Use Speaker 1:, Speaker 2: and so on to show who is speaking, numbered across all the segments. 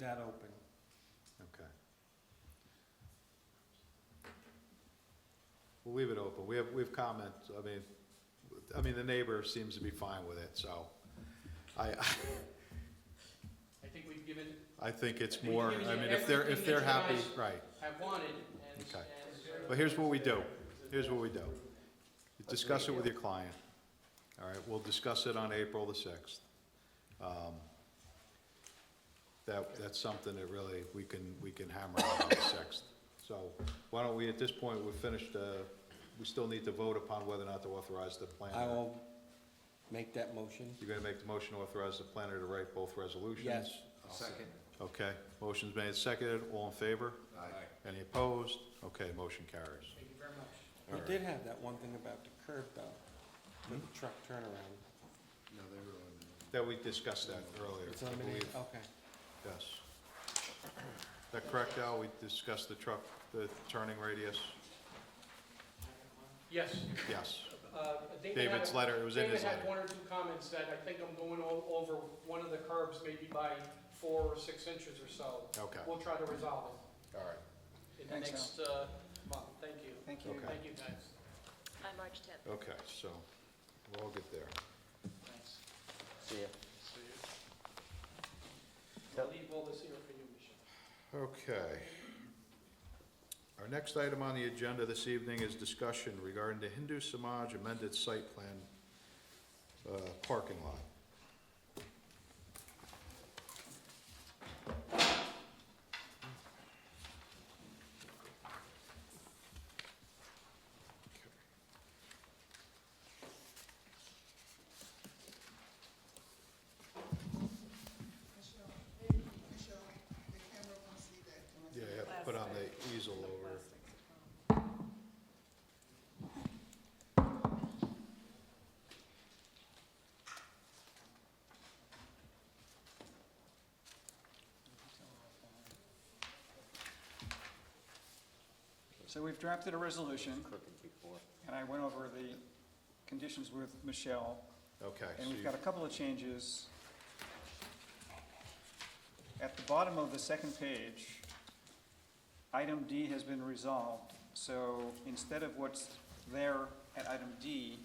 Speaker 1: that open.
Speaker 2: Okay. We'll leave it open. We have, we've comments, I mean, I mean, the neighbor seems to be fine with it, so I,
Speaker 3: I think we've given,
Speaker 2: I think it's
Speaker 3: I think
Speaker 2: more,
Speaker 3: it gives
Speaker 2: I
Speaker 3: you
Speaker 2: mean, if they're, if
Speaker 3: everything
Speaker 2: they're
Speaker 3: that
Speaker 2: happy,
Speaker 3: you
Speaker 2: right.
Speaker 3: have wanted, and,
Speaker 2: Okay.
Speaker 3: and.
Speaker 2: But here's what we do. Here's what we do. You Discuss it with your client. All right, we'll discuss it on April the sixth. Um, That, that's something that really, we can, we can hammer out on the sixth. So why don't we, at this point, we're finished, uh, we still need to vote upon whether or not to authorize the planner.
Speaker 1: I will make that motion.
Speaker 2: You're gonna make the motion to authorize the planner to write both resolutions?
Speaker 1: Yes.
Speaker 4: Second.
Speaker 2: Okay, motion's made, seconded, all in favor?
Speaker 4: Aye.
Speaker 2: Any opposed? Okay, motion carries.
Speaker 3: Thank you very much.
Speaker 1: We
Speaker 2: All right. Hmm?
Speaker 1: did have that one thing about the curb though, with the truck turnaround.
Speaker 4: No, they were on the-
Speaker 2: That we discussed that earlier,
Speaker 1: It's
Speaker 2: I
Speaker 1: eliminated,
Speaker 2: believe.
Speaker 1: okay.
Speaker 2: Yes. Is that correct, Al? We discussed the truck, the turning radius?
Speaker 3: Yes,
Speaker 2: Yes.
Speaker 3: uh, David had,
Speaker 2: David's letter, it was in
Speaker 3: David
Speaker 2: his
Speaker 3: had
Speaker 2: letter.
Speaker 3: one or two comments that I think I'm going o- over one of the curbs maybe by four or six inches or so.
Speaker 2: Okay, all
Speaker 3: We'll try to resolve
Speaker 2: right,
Speaker 3: it in the
Speaker 5: Thanks,
Speaker 3: next, uh, month, thank you. Thank
Speaker 2: you. Okay.
Speaker 3: Thank you, guys.
Speaker 6: By March 10th.
Speaker 2: okay, so we'll all get there.
Speaker 3: Thanks.
Speaker 5: See ya.
Speaker 3: I'll leave all this here for you, Michelle.
Speaker 2: Okay. Our next item on the agenda this evening is discussion regarding the Hindu Samaj amended site plan uh, parking lot. Yeah, yeah, put on the easel over.
Speaker 5: So we've drafted a resolution. And I went over the conditions with Michelle,
Speaker 2: Okay, so
Speaker 5: and we've
Speaker 2: you,
Speaker 5: got a couple of changes. At the bottom of the second page, item D has been resolved, so instead of what's there at item D,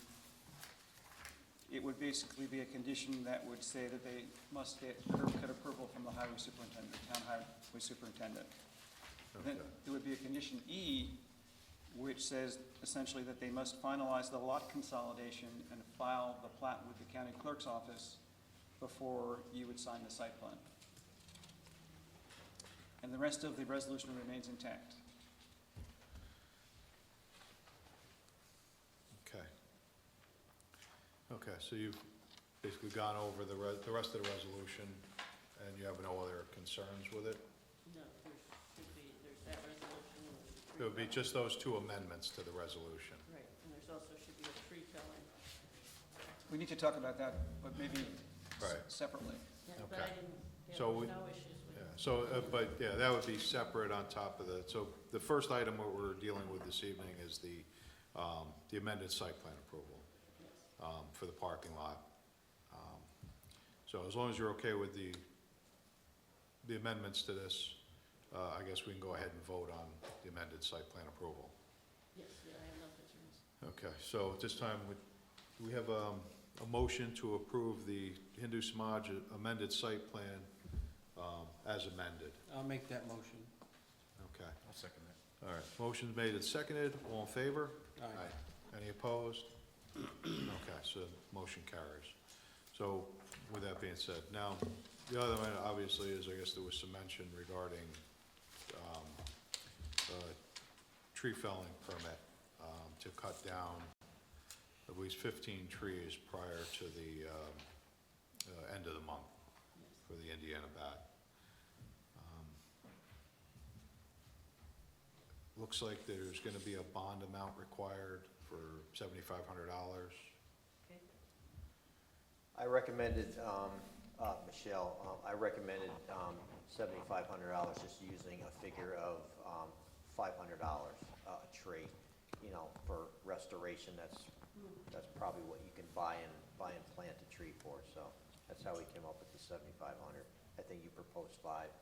Speaker 5: it would basically be a condition that would say that they must get curb cut approval from the highway superintendent, town highway superintendent. Then
Speaker 2: okay,
Speaker 5: it would be a condition E, which says essentially that they must finalize the lot consolidation and file the plat with the county clerk's office before you would sign the site plan. And the rest of the resolution remains intact.
Speaker 2: okay. Okay, so you've basically gone over the re, the rest of the resolution, and you have no other concerns with it?
Speaker 7: No, there's, there'd be, there's that resolution. and there's a
Speaker 2: It would be
Speaker 7: tree
Speaker 2: just those two amendments to the resolution.
Speaker 7: felling. Right, and there's also should be a tree felling.
Speaker 5: We need to talk about that, but maybe s-
Speaker 2: Right.
Speaker 5: separately.
Speaker 7: But
Speaker 2: Okay.
Speaker 7: I didn't, yeah,
Speaker 2: So we-
Speaker 7: there's no issues with
Speaker 2: Yeah, so, uh, but, yeah, that would be separate on top of the, so the first item what we're dealing with this evening is the, um, the amended site plan approval, um, for the parking lot. Um, So as long as you're okay with the, the amendments to this, uh, I guess we can go ahead and vote on the amended site plan approval.
Speaker 7: Yes, yeah, I have no concerns.
Speaker 2: Okay, so at this time, we, we have, um, a motion to approve the Hindu Samaj amended site plan, um, as amended.
Speaker 1: I'll make that motion.
Speaker 2: Okay.
Speaker 4: I'll second that.
Speaker 2: All right, motion's made and seconded, all in favor?
Speaker 1: All right.
Speaker 2: Any opposed? Okay, so motion carries. So with that being said, now, the other one obviously is, I guess there was some mention regarding, um, uh, tree felling permit, um, to cut down at least fifteen trees prior to the, um, uh, end of the month for the Indiana bat. Um, Looks like there's gonna be a bond amount required for seventy-five hundred dollars.
Speaker 7: Okay.
Speaker 8: I recommended, um, uh, Michelle, um, I recommended, um, seventy-five hundred dollars, just using a figure of, um, five hundred dollars, uh, a tree, you know, for restoration, that's, that's probably what you can buy and, buy and plant a tree for, so that's how we came up with the seventy-five hundred. I think you proposed five.